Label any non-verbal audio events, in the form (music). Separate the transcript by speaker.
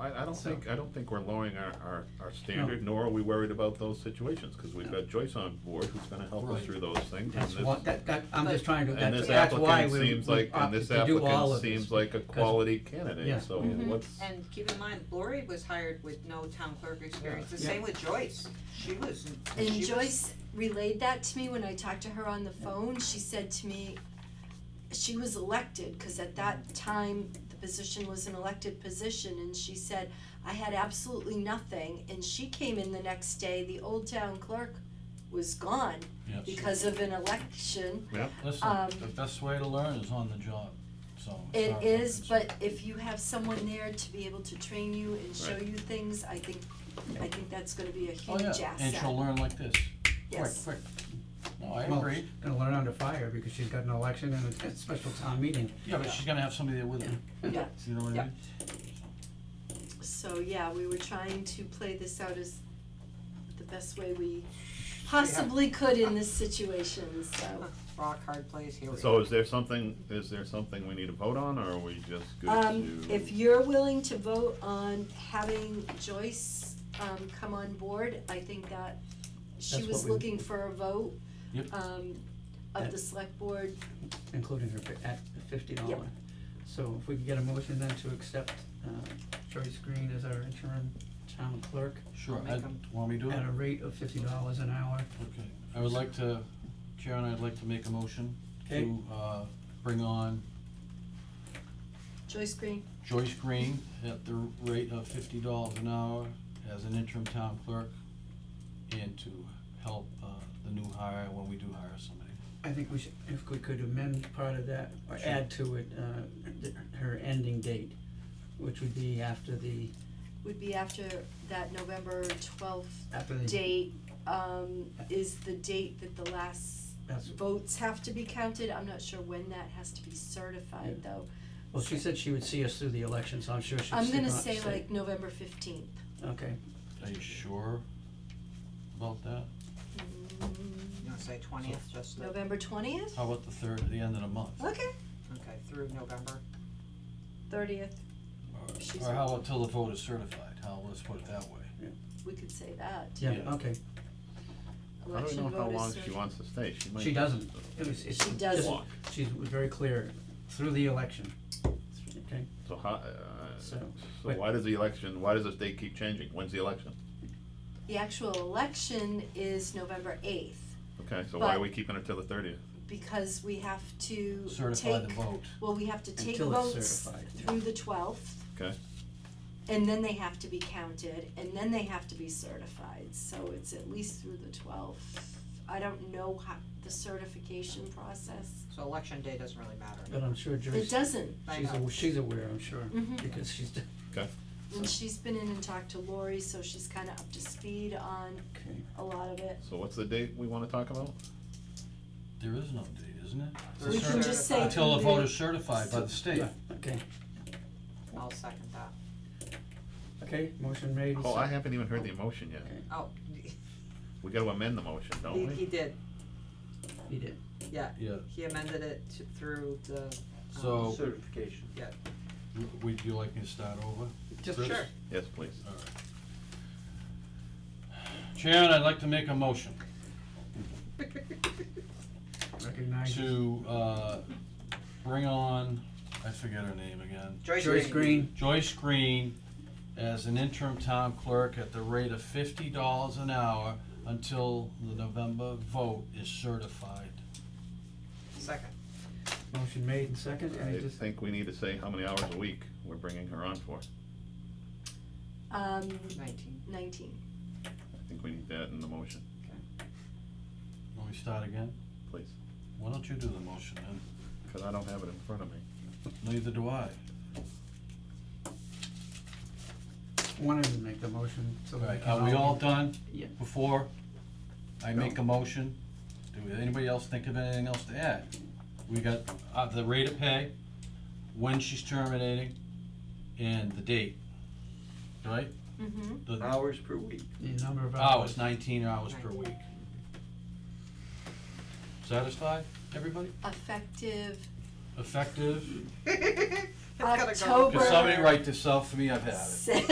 Speaker 1: I, I don't
Speaker 2: So-
Speaker 1: think, I don't think we're lowering our, our, our standard, nor are we worried about those situations, cause we've got Joyce on board who's gonna help us
Speaker 2: Right.
Speaker 1: through those things. and
Speaker 2: That's
Speaker 1: this-
Speaker 2: what, that, that, I'm just trying to,
Speaker 1: And
Speaker 2: that's,
Speaker 1: this
Speaker 2: that's why
Speaker 1: applicant
Speaker 2: we
Speaker 1: seems
Speaker 2: we
Speaker 1: like, and
Speaker 2: opted
Speaker 1: this
Speaker 2: to do all
Speaker 1: applicant
Speaker 2: of this.
Speaker 1: seems like a
Speaker 2: 'cause-
Speaker 1: quality
Speaker 2: Yeah.
Speaker 1: candidate, so
Speaker 3: Mm-hmm.
Speaker 4: Mhm.
Speaker 1: what's,
Speaker 4: And keep in mind, Lori was hired with no town clerk experience, the
Speaker 2: Yeah.
Speaker 4: same with Joyce, she was, she
Speaker 3: And
Speaker 4: was-
Speaker 3: Joyce relayed that to me when I talked to her on the phone, she said to me, she was elected, cause at that time, the position was an elected position, and she said, I had absolutely nothing, and she came in the next day, the old town clerk was gone
Speaker 5: Yes.
Speaker 3: because of an election.
Speaker 5: Listen,
Speaker 3: um,
Speaker 5: the best way to learn is on the job, so. it's
Speaker 3: It
Speaker 5: not-
Speaker 3: is,
Speaker 5: it's-
Speaker 3: but if you have someone there to be able to train you and show
Speaker 1: Right.
Speaker 3: you things, I think, I think that's gonna be a
Speaker 5: Oh,
Speaker 3: huge
Speaker 5: yeah,
Speaker 3: asset,
Speaker 5: and she'll learn like this.
Speaker 3: yes.
Speaker 5: Quick, quick. No, I
Speaker 2: Well,
Speaker 5: agree.
Speaker 2: Gonna learn under fire because she's got an election and a- a special town meeting.
Speaker 5: Yeah, but she's gonna have somebody there with her.
Speaker 3: Yeah.
Speaker 5: You know what I
Speaker 3: Yeah.
Speaker 5: mean?
Speaker 3: So yeah, we were trying to play this out as the best way we possibly could in this situation, so.
Speaker 4: rock hard place, here we go.
Speaker 1: so is there something, is there something we need to vote on, or are we just good to?
Speaker 3: Um, if you're willing to vote on having Joyce, um, come on board, I think that she
Speaker 2: That's
Speaker 3: was
Speaker 2: what we-
Speaker 3: looking for a vote,
Speaker 5: Yep.
Speaker 3: um, of
Speaker 2: Yeah.
Speaker 3: the select board.
Speaker 2: including her fi- at fifty dollar.
Speaker 3: Yep.
Speaker 2: So if we could get a motion then to accept uh Joyce Green as our interim town clerk
Speaker 5: Sure,
Speaker 4: Make
Speaker 5: I,
Speaker 4: 'em.
Speaker 5: want me to do it?
Speaker 2: at a rate of fifty dollars an hour.
Speaker 5: Okay, I would like to, Sharon, I'd like to make a motion
Speaker 2: Okay.
Speaker 5: to, uh, bring on
Speaker 3: Joyce Green,
Speaker 5: Joyce Green at the rate of fifty dollars an hour as an interim town clerk and to help, uh, the new hire when we do hire somebody.
Speaker 2: I think we should, if we could amend part of that or
Speaker 5: Sure.
Speaker 2: add to it uh th- her ending date, which would be after the,
Speaker 3: would be after that November twelfth
Speaker 2: after the,
Speaker 3: date, um, is the date that the last
Speaker 2: that's,
Speaker 3: votes have to be counted, I'm not sure when that has to be certified though.
Speaker 2: well, she said she would see us through the election, so I'm sure she'll
Speaker 3: I'm
Speaker 2: stick
Speaker 3: gonna
Speaker 2: on-
Speaker 3: say like November fifteenth.
Speaker 2: Okay,
Speaker 5: Are you sure about that?
Speaker 4: You wanna say twentieth, just the,
Speaker 3: November twentieth?
Speaker 5: How about the third, the end of the month? Or-
Speaker 3: Okay.
Speaker 4: okay, through November,
Speaker 3: Thirtieth, She's
Speaker 5: Or how
Speaker 3: right.
Speaker 5: about till the vote is certified, how, let's put it that way.
Speaker 3: we could say that.
Speaker 2: yeah,
Speaker 5: Yeah.
Speaker 2: okay,
Speaker 1: I don't
Speaker 3: Election
Speaker 1: know how
Speaker 3: vote
Speaker 1: long
Speaker 3: is
Speaker 1: she
Speaker 3: certi-
Speaker 1: wants to stay, she might.
Speaker 2: she doesn't, it was, it's,
Speaker 3: She
Speaker 2: just-
Speaker 3: doesn't.
Speaker 1: Walk,
Speaker 2: she's very clear, through the election, okay?
Speaker 1: so how, uh, so
Speaker 2: So- wait.
Speaker 1: why does the election, why does this date keep changing, when's the election?
Speaker 3: The actual election is November eighth,
Speaker 1: Okay, so why are
Speaker 3: But-
Speaker 1: we keeping it till the thirtieth?
Speaker 3: because we have to
Speaker 5: Certify the
Speaker 3: take,
Speaker 5: vote.
Speaker 3: well, we have to take
Speaker 2: Until it's
Speaker 3: votes
Speaker 2: certified, yeah.
Speaker 3: through the twelfth.
Speaker 1: Okay.
Speaker 3: And then they have to be counted, and then they have to be certified, so it's at least through the twelfth. I don't know how, the certification process,
Speaker 4: so election day doesn't really matter.
Speaker 2: But I'm sure
Speaker 3: it
Speaker 2: Joyce,
Speaker 3: doesn't,
Speaker 4: I
Speaker 2: she's,
Speaker 4: know.
Speaker 2: aw- she's aware, I'm sure,
Speaker 3: Mhm.
Speaker 2: because she's, (laughs) d-
Speaker 3: and she's been in and talked to Lori, so she's kinda up to speed on
Speaker 2: okay,
Speaker 3: a lot of it.
Speaker 1: So what's the date we wanna talk about?
Speaker 5: There is no date, isn't it? It's a
Speaker 3: We can
Speaker 5: cer-
Speaker 3: just say
Speaker 5: Until the
Speaker 3: through
Speaker 5: vote
Speaker 3: the-
Speaker 5: is certified by the state.
Speaker 2: yeah, okay,
Speaker 4: I'll second that,
Speaker 2: okay, motion made.
Speaker 1: Oh, I haven't even heard the motion yet,
Speaker 2: Okay.
Speaker 4: oh,
Speaker 1: we gotta amend the motion,
Speaker 4: he,
Speaker 1: don't we?
Speaker 4: he did,
Speaker 2: He did,
Speaker 5: Yeah,
Speaker 4: he amended it to, through the,
Speaker 5: so,
Speaker 6: Certification.
Speaker 5: w- would you like me to start over?
Speaker 2: just,
Speaker 5: Chris?
Speaker 4: sure,
Speaker 1: Yes, please.
Speaker 5: Sharon, I'd like to make a motion
Speaker 2: recognize
Speaker 5: to, uh, bring on, I forget her name again,
Speaker 4: (laughs) Joyce Green.
Speaker 2: Joyce Green,
Speaker 5: Joyce Green as an interim town clerk at the rate of fifty dollars an hour until the November vote is certified.
Speaker 4: Second,
Speaker 2: motion made and second,
Speaker 1: I
Speaker 2: any dis-
Speaker 1: think we need to say how many hours a week we're bringing her on for.
Speaker 3: Um,
Speaker 4: nineteen, (laughs)
Speaker 3: nineteen,
Speaker 1: I think we need that in the motion,
Speaker 5: Let me start again.
Speaker 1: please,
Speaker 5: Why don't you do the motion then?
Speaker 1: because I don't have it in front of me.
Speaker 5: Neither do I.
Speaker 2: wanted to make the motion, so that I
Speaker 5: Right,
Speaker 2: can.
Speaker 5: are we all done?
Speaker 2: Yeah.
Speaker 5: Before I
Speaker 1: No.
Speaker 5: make a motion, do anybody else think of anything else to add? We got, uh, the rate of pay, when she's terminating, and the date, right?
Speaker 3: mm-hmm,
Speaker 5: The
Speaker 6: Hours per week.
Speaker 2: The number
Speaker 5: Oh,
Speaker 2: of hours.
Speaker 5: hours, nineteen hours per week. Satisfied, everybody?
Speaker 3: effective (laughs)
Speaker 5: Effective?
Speaker 4: it's gotta go.
Speaker 3: October.
Speaker 5: Could somebody write this out for me? I've had it.
Speaker 3: six.